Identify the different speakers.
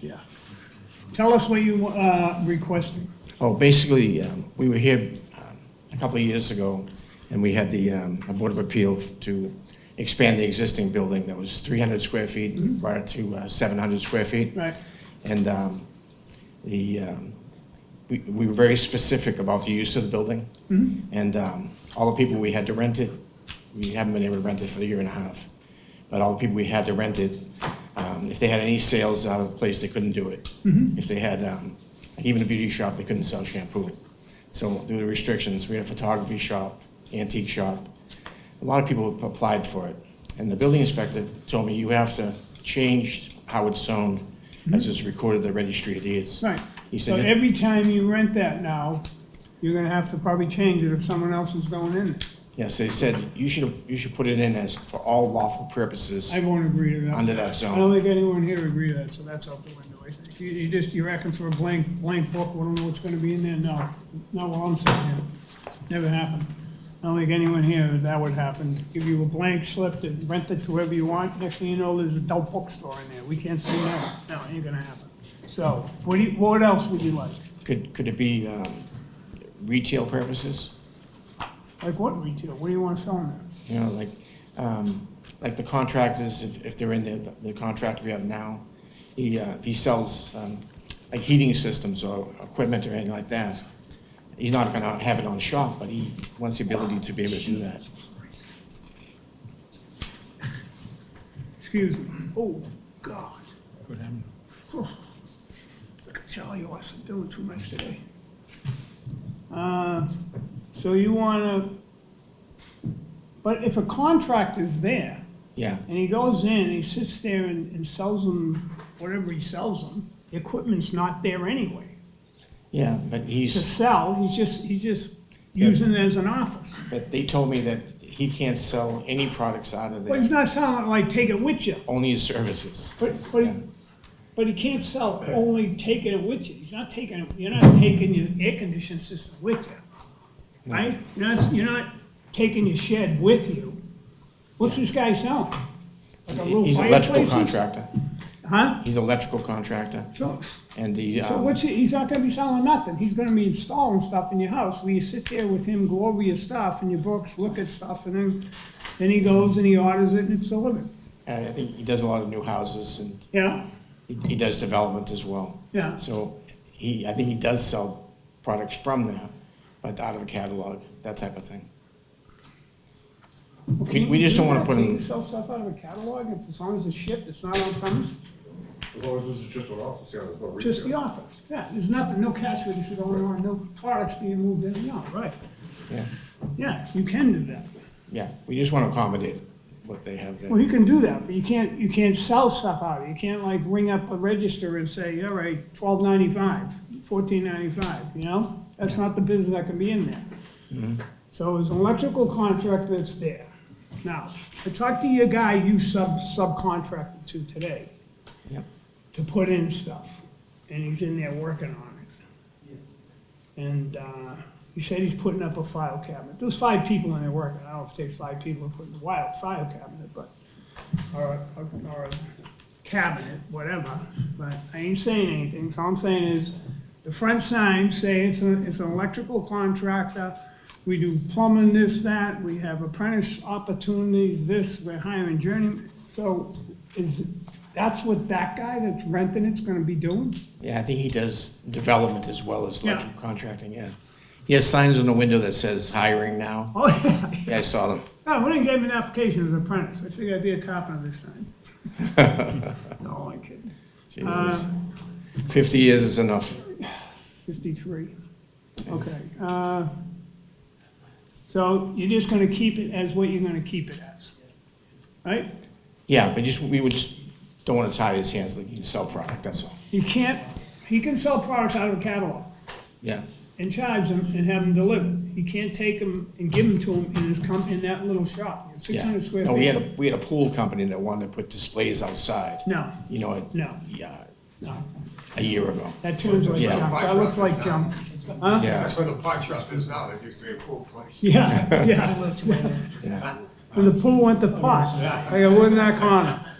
Speaker 1: Yeah.
Speaker 2: Tell us what you, uh, requested.
Speaker 1: Oh, basically, um, we were here um, a couple of years ago, and we had the um, a Board of Appeal to expand the existing building that was 300 square feet, we brought it to uh, 700 square feet.
Speaker 2: Mm-hmm. Right.
Speaker 1: And um, the, um, we we were very specific about the use of the building.
Speaker 2: Mm-hmm.
Speaker 1: And um, all the people we had to rent it, we haven't been able to rent it for a year and a half. But all the people we had to rent it, um, if they had any sales out of the place, they couldn't do it.
Speaker 2: Mm-hmm.
Speaker 1: If they had, um, like even a beauty shop, they couldn't sell shampoo. So due to restrictions, we had a photography shop, antique shop. A lot of people applied for it. And the building inspector told me, you have to change how it's zoned as it's recorded at the registry of deeds.
Speaker 2: Mm-hmm. Right.
Speaker 1: He
Speaker 2: So
Speaker 1: said,
Speaker 2: every time you rent that now, you're gonna have to probably change it if someone else is going in.
Speaker 1: yes, they said, you should, you should put it in as for all lawful purposes
Speaker 2: I won't agree to that.
Speaker 1: under that
Speaker 2: I
Speaker 1: zone.
Speaker 2: don't think anyone here agree to that, so that's out the window, I think. You, you just, you reckon for a blank, blank book, we don't know what's gonna be in there, no, not while I'm sitting here. Never happened. I don't think anyone here, that would happen. Give you a blank slip to rent it to whoever you want, next thing you know, there's a adult bookstore in there, we can't say no, no, ain't gonna happen. So, what do you, what else would you like?
Speaker 1: Could, could it be um, retail purposes?
Speaker 2: Like what retail, what do you wanna sell in there?
Speaker 1: You know, like, um, like the contractors, if, if they're in there, the contract we have now, he, uh, if he sells, um, like heating systems or equipment or anything like that, he's not gonna have it on shop, but he wants the ability to be able to do that.
Speaker 2: Excuse me. Oh, God. What happened? I can tell you, I'm doing too much today. Uh, So you wanna, but if a contract is there,
Speaker 1: Yeah,
Speaker 2: and he goes in, he sits there and, and sells them whatever he sells them, the equipment's not there anyway.
Speaker 1: yeah, but
Speaker 2: To
Speaker 1: he's,
Speaker 2: sell, he's just, he's just
Speaker 1: Yeah.
Speaker 2: using it as an office.
Speaker 1: but they told me that he can't sell any products out of
Speaker 2: But
Speaker 1: there,
Speaker 2: he's not selling it like, take it with you.
Speaker 1: only his services.
Speaker 2: But, but, he-
Speaker 1: Yeah.
Speaker 2: but he can't sell only taking it with you, he's not taking, it. you're not taking your air conditioning system with you, right? You're not, you're not taking your shed with you. What's this guy selling? Like a little
Speaker 1: He's an electrical
Speaker 2: fireplace?
Speaker 1: contractor,
Speaker 2: Huh?
Speaker 1: he's an electrical contractor,
Speaker 2: So,
Speaker 1: and he,
Speaker 2: so
Speaker 1: um,
Speaker 2: what's, he- he's not gonna be selling nothing, he's gonna be installing stuff in your house, where you sit there with him, go over your stuff and your books, look at stuff, and then, then he goes and he orders it and it's delivered,
Speaker 1: I think he does a lot of new houses and
Speaker 2: you know?
Speaker 1: He he does development as well.
Speaker 2: Yeah.
Speaker 1: So he, I think he does sell products from there, but out of a catalog, that type of thing. We, we just don't wanna put
Speaker 2: Can you
Speaker 1: him,
Speaker 2: sell stuff out of a catalog, if as long as it's shipped, it's not on premise,
Speaker 3: As long as this is just an office, yeah, there's no retail.
Speaker 2: just the office, yeah, there's nothing, no cash registers going on, no products being moved in, no, right.
Speaker 1: yeah,
Speaker 2: Yeah, you can do that,
Speaker 1: yeah, we just wanna accommodate what they have
Speaker 2: well,
Speaker 1: there.
Speaker 2: you can do that, but you can't, you can't sell stuff out, of it. you can't like ring up a register and say, all right, twelve ninety-five, fourteen ninety-five, you know? That's not the business that can be in there.
Speaker 1: Mm-hmm.
Speaker 2: So there's an electrical contract that's there. Now, I talked to your guy you sub, subcontracted to today.
Speaker 1: Yep.
Speaker 2: to put in stuff, and he's in there working on it. And uh, he said he's putting up a file cabinet. There's five people in there working. I don't know if it takes five people to put in a wild file cabinet, but, or, a- or a cabinet, whatever. But I ain't saying anything, so all I'm saying is, the front signs say it's an, it's an electrical contractor. We do plumbing this, that, we have apprentice opportunities, this, we're hiring journeyman. So is, that's what that guy that's renting it's gonna be doing?
Speaker 1: Yeah, I think he does development as well as
Speaker 2: Yeah.
Speaker 1: electrical contracting, yeah. He has signs on the window that says hiring now,
Speaker 2: Oh, yeah.
Speaker 1: yeah, I saw them.
Speaker 2: No, we didn't give him an application as an apprentice. I figured I'd be a carpenter this time. No, I'm kidding. Uh.
Speaker 1: Jesus. Fifty years is enough,
Speaker 2: Fifty-three. Okay, uh, so you're just gonna keep it as what you're gonna keep it as, right?
Speaker 1: yeah, but just, we would just, don't wanna tie his hands like he can sell product, that's all,
Speaker 2: He can't, he can sell products out of a catalog
Speaker 1: yeah,
Speaker 2: and charge them and have them delivered. He can't take them and give them to him in his com, in that little shop, six
Speaker 1: yeah.
Speaker 2: hundred square feet.
Speaker 1: No, we had a, we had a pool company that wanted to put displays outside.
Speaker 2: No,
Speaker 1: you know, it-
Speaker 2: No.
Speaker 1: yeah,
Speaker 2: no,
Speaker 1: a year ago.
Speaker 2: that turns like
Speaker 1: Yeah.
Speaker 2: junk. That looks like junk. Huh?
Speaker 1: Yeah,
Speaker 3: That's where the pie shop is now, that used to be a cool place.
Speaker 2: Yeah, yeah.
Speaker 1: yeah,
Speaker 2: When the pool went to pot, like it wouldn't that corner.